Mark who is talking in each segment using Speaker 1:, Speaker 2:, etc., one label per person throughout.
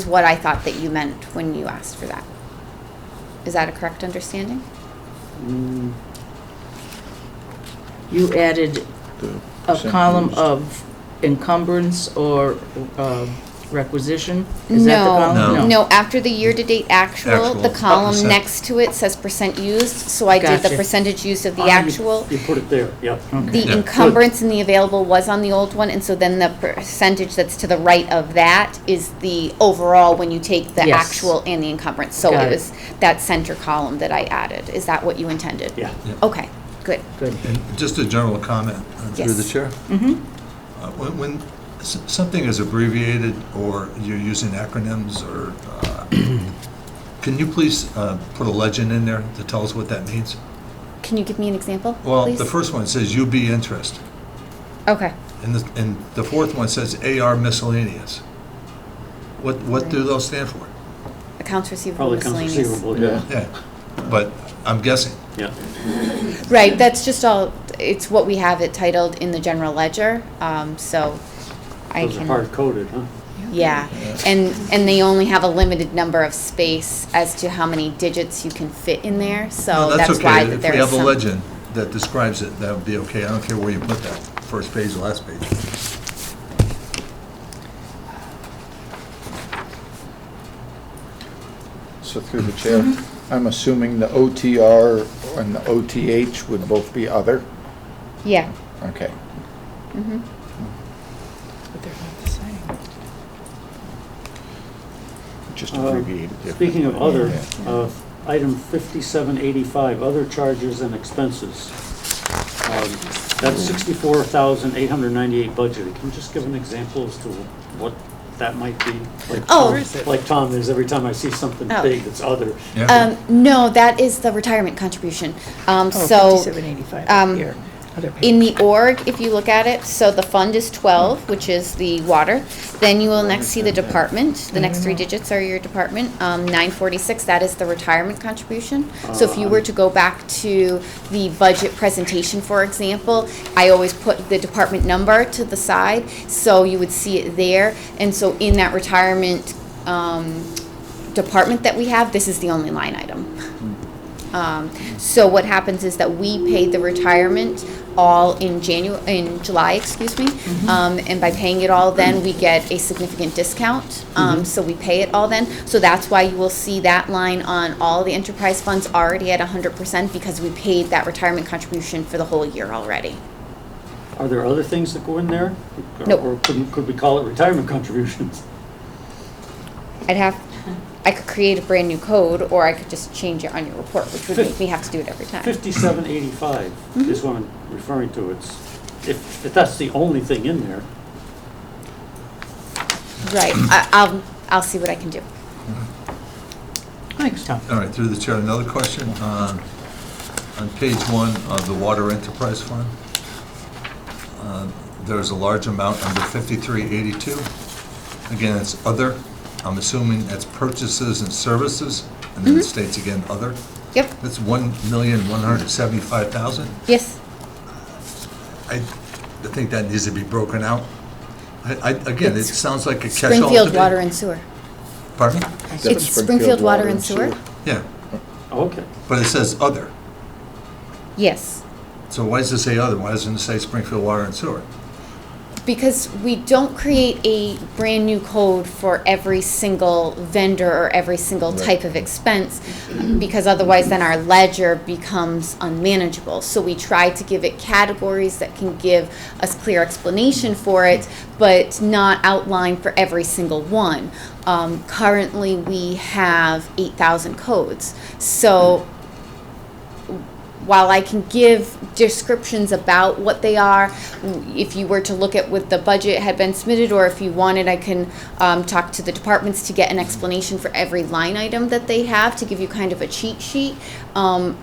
Speaker 1: is what I thought that you meant when you asked for that. Is that a correct understanding?
Speaker 2: You added a column of encumbrance or uh, requisition? Is that the column?
Speaker 1: No, no, after the year-to-date actual,
Speaker 3: Actual,
Speaker 1: the
Speaker 3: up
Speaker 1: column
Speaker 3: percent.
Speaker 1: next to it says percent used, so I did the
Speaker 2: Gotcha.
Speaker 1: percentage used of
Speaker 4: Ah,
Speaker 1: the
Speaker 4: you-
Speaker 1: actual.
Speaker 4: You put it there, yep.
Speaker 1: The
Speaker 3: Yeah.
Speaker 1: encumbrance and the available was on the old one, and so then the percentage that's to the right of that is the overall when you take the
Speaker 2: Yes.
Speaker 1: actual and the encumbrance. So it
Speaker 2: Got it.
Speaker 1: was that center column that I added. Is that what you intended?
Speaker 4: Yeah.
Speaker 3: Yeah.
Speaker 1: Okay, good.
Speaker 2: Good.
Speaker 3: And just a general comment. uh,
Speaker 1: Yes.
Speaker 5: Through the chair?
Speaker 3: Uh, When, when s- something is abbreviated or you're using acronyms or, uh, can you please uh, put a legend in there to tell us what that means?
Speaker 1: Can you give me an example,
Speaker 3: Well, the
Speaker 1: please?
Speaker 3: first one says UB interest,
Speaker 1: Okay.
Speaker 3: and the, and the fourth one says AR miscellaneous. What, what do those stand for?
Speaker 1: Accounts receivable
Speaker 4: Probably comes
Speaker 1: miscellaneous.
Speaker 4: receivable, yeah.
Speaker 3: Yeah, but I'm guessing.
Speaker 4: Yeah.
Speaker 1: Right, that's just all, it's what we have it titled in the general ledger, um, so I
Speaker 4: Those are
Speaker 1: can,
Speaker 4: hard coded, huh?
Speaker 1: yeah. And, and they only have a limited number of space as to how many digits you can fit in there, so
Speaker 3: No,
Speaker 1: Oh, that's
Speaker 3: okay.
Speaker 1: why that
Speaker 3: If
Speaker 1: there
Speaker 3: we
Speaker 1: is
Speaker 3: have a
Speaker 1: some.
Speaker 3: legend that describes it, that would be okay. I don't care where you put that, first page, last page.
Speaker 5: So through the chair, I'm assuming the OTR and the OTH would both be other?
Speaker 1: Yeah,
Speaker 5: Okay.
Speaker 1: Mm-hmm.
Speaker 6: But they're not the same.
Speaker 5: Just
Speaker 4: Uh,
Speaker 5: abbreviated. differently.
Speaker 4: Speaking of other,
Speaker 5: Yeah.
Speaker 4: uh, item 5785, other charges and expenses. Um, That's 64,898 budgeted. Can you just give an example as to what that might be? Like
Speaker 1: Oh.
Speaker 4: Tom-
Speaker 1: Where
Speaker 6: is it?
Speaker 4: Like Tom is every time I see something
Speaker 1: Oh.
Speaker 4: big that's other.
Speaker 3: Yeah.
Speaker 1: um, no, that is the retirement contribution, um,
Speaker 6: Oh,
Speaker 1: so.
Speaker 6: 5785
Speaker 1: um,
Speaker 6: up here. Other
Speaker 1: In
Speaker 6: page.
Speaker 1: the org, if you look at it, so the fund is 12,
Speaker 6: Hmm.
Speaker 1: which is the water. Then you will next see the department. The next
Speaker 6: Mm-hmm.
Speaker 1: three digits are your department. Um, 946, that is the retirement contribution. So if you were to go back to the budget presentation, for example, I always put the department number to the side, so you would see it there. And so in that retirement um, department that we have, this is the only line item. Um, so what happens is that we pay the retirement all in Janu, in July, excuse me. Um, and by paying it all then, we get a significant discount. Um, so we pay it all then. So that's why you will see that line on all the enterprise funds already at hundred percent because we paid that retirement contribution for the whole year already.
Speaker 4: Are there other things that go in there? Or-
Speaker 1: Nope.
Speaker 4: Or could could we call it retirement contributions?
Speaker 1: I'd have, I could create a brand new code or I could just change it on your report, which would make me have to do it every time.
Speaker 4: 5785 is what I'm referring to. It's, if, if that's the only thing in there,
Speaker 1: Right, I, I'll, I'll see what I can do.
Speaker 2: Thanks, Tom.
Speaker 3: All right, through the chair, another question. um, On page one of the Water Enterprise Fund, um, there's a large amount under 5382. Again, it's other. I'm assuming that's purchases and services, and
Speaker 1: Mm-hmm.
Speaker 3: then it states again, other.
Speaker 1: Yep,
Speaker 3: That's 1,175,000.
Speaker 1: yes.
Speaker 3: I, I think that needs to be broken out. I, I, again, it
Speaker 1: It's
Speaker 3: sounds like a catch-all. to
Speaker 1: Springfield
Speaker 3: me.
Speaker 1: Water and Sewer.
Speaker 3: Pardon me?
Speaker 5: That's
Speaker 1: It's Springfield Water and Sewer?
Speaker 3: Yeah,
Speaker 4: okay.
Speaker 3: but it says other.
Speaker 1: Yes,
Speaker 3: So why does it say other? Why doesn't it say Springfield Water and Sewer?
Speaker 1: because we don't create a brand-new code for every single vendor or every single type of expense, because otherwise then our ledger becomes unmanageable. So we try to give it categories that can give us clear explanation for it, but not outline for every single one. Um, Currently, we have 8,000 codes, so while I can give descriptions about what they are, w- if you were to look at what the budget had been submitted, or if you wanted, I can um, talk to the departments to get an explanation for every line item that they have to give you kind of a cheat sheet. Um,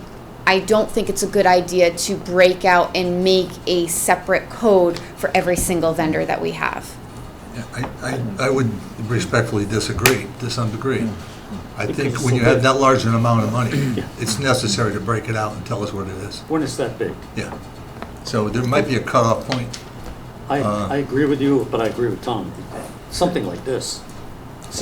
Speaker 1: I don't think it's a good idea to break out and make a separate code for every single vendor that we have.
Speaker 3: Yeah, I, I, I would respectfully disagree to some degree. I think
Speaker 4: it's
Speaker 3: when
Speaker 4: so
Speaker 3: you have
Speaker 4: big.
Speaker 3: that large an amount of money,
Speaker 4: Yeah.
Speaker 3: it's necessary to break it out and tell us what it is.
Speaker 4: When it's that big.
Speaker 3: Yeah. So there might be a cutoff point.
Speaker 4: I, I agree with you, but I agree with Tom. Something like this,